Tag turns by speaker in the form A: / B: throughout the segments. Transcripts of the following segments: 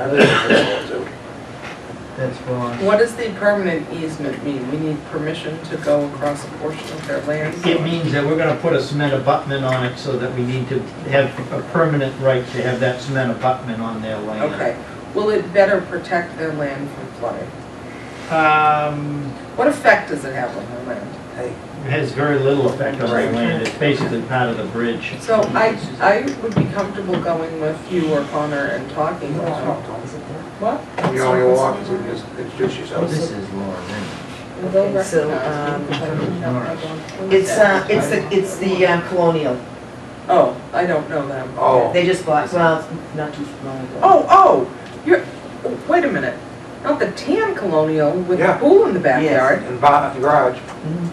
A: I think it's all too.
B: That's wrong.
C: What does the permanent easement mean? We need permission to go across a portion of their land?
B: It means that we're gonna put a cement abutment on it so that we need to have a permanent right to have that cement abutment on their land.
C: Okay, will it better protect their land from flooding?
B: Um,
C: What effect does it have on their land?
B: it has very little effect on their land, it's basically part of the bridge.
C: So I, I would be comfortable going with you or Connor and talking with them. What?
A: You know, you walk, you just introduce yourself.
B: Oh, is Lauren
D: Okay, so,
C: um,
D: It's, uh, it's the, it's the uh, Colonial.
C: Oh, I don't know them.
A: Oh,
D: They just bought, well, not too long ago.
C: Oh, oh, you're, oh, wait a minute, not the tan colonial with the
A: Yeah.
C: pool in the backyard?
A: and barn, and garage,
D: Mhm.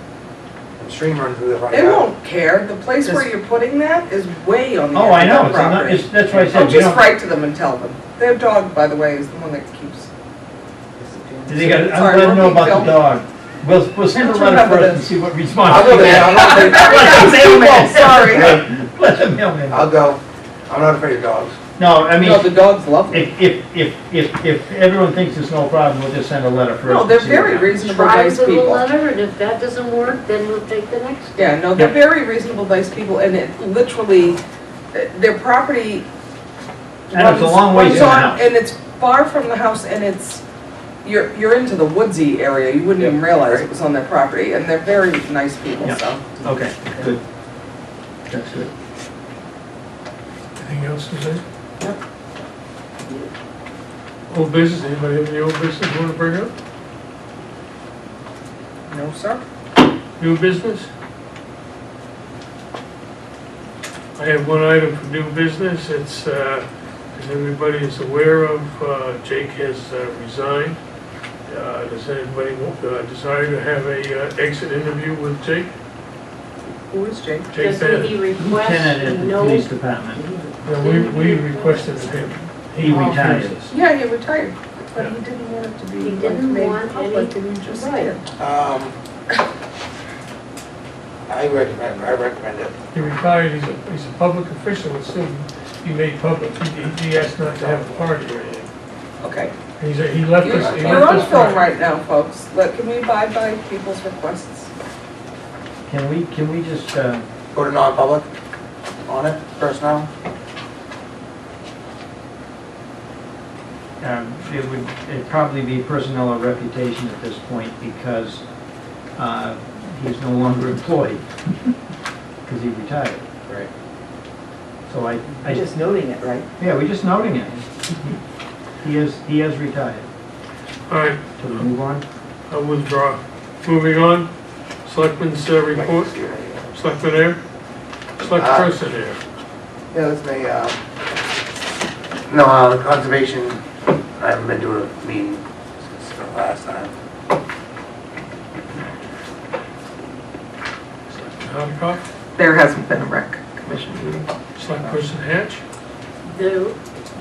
A: and stream run through the front
C: They
A: yard.
C: won't care, the place where you're putting that is way on the
B: Oh, I
C: edge
B: know,
C: of
B: it's,
C: their
B: not-
C: property.
B: it's, that's why I
C: Oh,
B: said, you
C: just
B: know,
C: write to them and tell them. Their dog, by the way, is the one that keeps,
B: they gotta,
C: Sorry,
B: I'm letting know
C: we're being
B: about the dog. We'll, we'll send a
C: Let's
B: letter
C: remember
B: first and
C: this.
B: see what
A: I'll
B: response
A: go
B: we
A: there,
B: get.
A: I'm not afraid,
B: Let the mailman,
C: Sorry.
B: sorry. Let the mailman.
A: I'll go, I'm not afraid of dogs.
B: No, I mean,
C: no, the dogs love them.
B: if, if, if, if, if everyone thinks it's no problem, we'll just send a letter first.
C: No,
B: and
C: they're
B: see what
C: very
B: happens.
C: reasonable,
E: Try
C: nice
E: the little
C: people.
E: letter, and if that doesn't work, then we'll take the next.
C: Yeah, no, they're
B: Yeah.
C: very reasonable, nice people, and it literally, uh, their property
B: And it's a
C: runs-
B: long ways
C: runs
B: from the
C: on-
B: house.
C: And it's far from the house, and it's, you're, you're into the woodsy area, you wouldn't even realize it was on their property, and they're very nice people,
B: Yeah.
C: so.
B: Okay, good. That's good.
F: Anything else to say? Old business, anybody have any old business you want to bring up?
C: No, sir?
F: New business? I have one item for new business, it's, uh, as everybody is aware of, uh, Jake has uh, resigned. Uh, Does anybody want- uh, desire to have a uh, exit interview with Jake?
C: Who is Jake?
F: Jake
E: Does
F: Bennett?
E: he
B: Lieutenant
E: request,
B: at the
E: no,
B: police department,
F: Yeah, We we requested him.
B: he retired.
C: Yeah, he retired, but
F: Yeah.
C: he didn't want it to be.
E: He didn't
C: made
E: want
C: public,
E: any-
C: and he just
E: right.
C: did.
A: Um, I recommend, I recommend it.
F: He retired, he's a, he's a public official, it's soon be made public, he, he- he asked not to have a party or anything.
C: Okay.
F: He's, a- he left
C: You're
F: us, he
C: you're
F: left
C: on
F: us.
C: film right now, folks, Look, can we abide by people's requests?
B: Can we, can we just, uh,
A: Go to non-public on it, personnel.
B: um, it would, it'd probably be personnel or reputation at this point because, uh, he's no longer employed. Because he retired.
A: Right.
B: So I,
D: You're
B: I,
D: Just noting it, right?
B: yeah, we're just noting it. He has, he has retired.
F: All right,
B: So we move on?
F: I withdraw. Moving on, selectmen's uh, report, selectmen air, select
A: Uh,
F: person air.
A: Yeah, that's my, uh, no, uh, the conservation, I haven't been to a meeting since the last time.
F: Hancock,
C: There hasn't been a rec commission meeting.
F: select person Hatch.
E: the,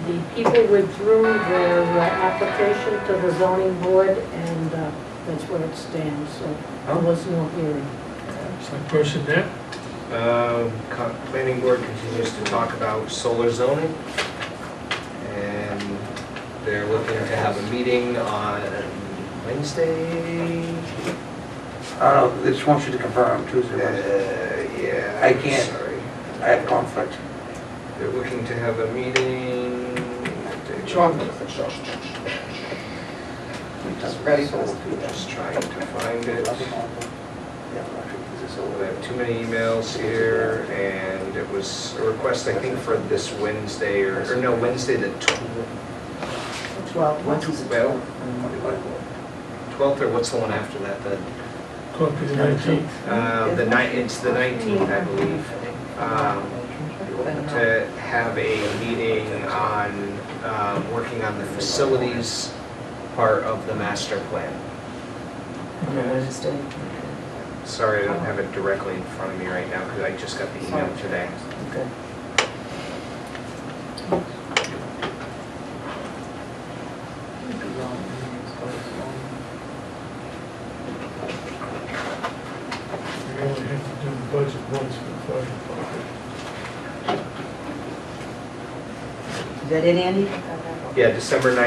E: the people withdrew their uh, application to the zoning board, and uh, that's where it stands, so there was no hearing.
F: select person Knapp.
G: Um, co- Planning board continues to talk about solar zoning. And they're looking to have a meeting on Wednesday.
A: I don't know, they just want you to confirm
G: Uh,
A: Tuesday, Wednesday.
G: Yeah.
A: I can't.
G: Sorry.
A: I have conflict.
G: They're looking to have a meeting.
C: Just ready for this.
G: Just trying to find it. I have too many emails here, and it was a request, I think, for this Wednesday, or, or no, Wednesday the tw-
D: Twelve, once was a
G: Well-
D: twelve.
G: twelfth, or what's the one after that, the,
F: Clerk of the nineteenth.
G: uh, the night, it's the nineteenth, I believe. Um,
C: Uh,
G: to have a meeting on, um, working on the facilities part of the master plan.
D: On a Wednesday.
G: Sorry, I don't have it directly in front of me right now, because I just got the email today.
D: Okay.
F: We only have to do the budget once for the fire department.
D: Is that it, Andy?
G: Yeah, December 19th